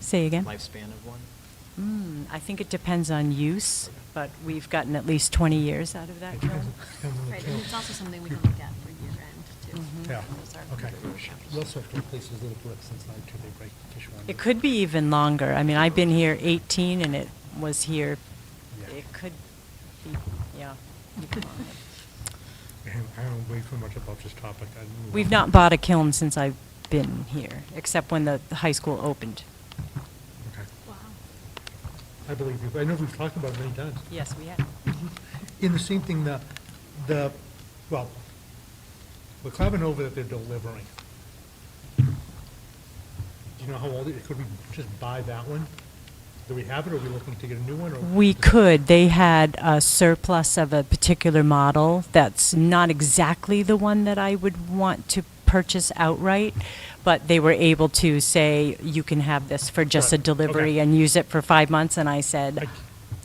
Say again? Lifespan of one? Mm, I think it depends on use, but we've gotten at least 20 years out of that Depends- kiln. depends on the Right, kiln. and it's also something we can look at for year-end, Mhm. too. Yeah, Those are- okay. We also have to replace those little bricks inside too, they break fish one. It could be even longer. I mean, I've been here 18 and it was here, Yeah. it could be, yeah. even longer. Man, I don't way too much about this topic. I don't know. We've not bought a kiln since I've been here, except when the high school opened. Okay. Wow. I believe you. I know we've talked about it many times. Yes, we have. In the same thing, the, the, well, we're climbing over that they're delivering. Do you know how old it, could we just buy that one? Do we have it, or are we looking to get a new one, or? We could. They had a surplus of a particular model that's not exactly the one that I would want to purchase outright, but they were able to say, you can have this for just a Right, okay. delivery and use it for five months, and I I, said,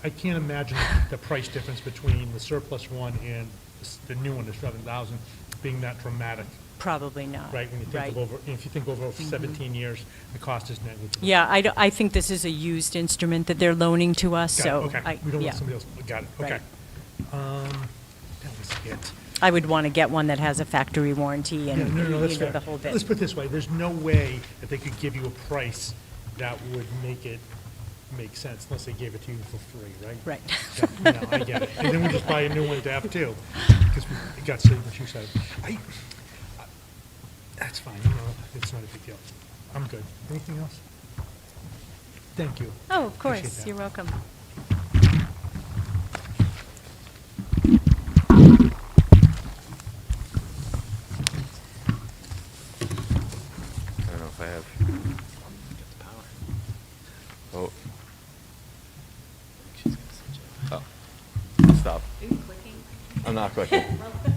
I can't imagine the price difference between the surplus one and s- the new one, the seven thousand, being that dramatic, probably not. right? When you think of Right. Mm-hmm. over, if you think over seventeen years, the cost is negligible. Yeah, I, do- I think this is a used instrument that they're loaning to us, Got it, so. okay. I- We don't yeah. want somebody else, oh, got it, okay. Right. Um, that was it. I would want to get one that has a factory warranty Yeah, and, no, no, no, that's you know, fair. the whole bit. Let's put it this way, there's no way that they could give you a price that would make it make sense unless they gave it to you for free, right? Right. Yeah, No, I get it. And then we just buy a new one to have too, because we it got saved what you said. I, I- that's fine, no, no, it's not a big deal. I'm good. Anything else? Thank you. Oh, of Appreciate course, that. you're welcome. I don't know if I have. Got the power. Oh, She's got such a- oh. Stop. Are you clicking? I'm not clicking.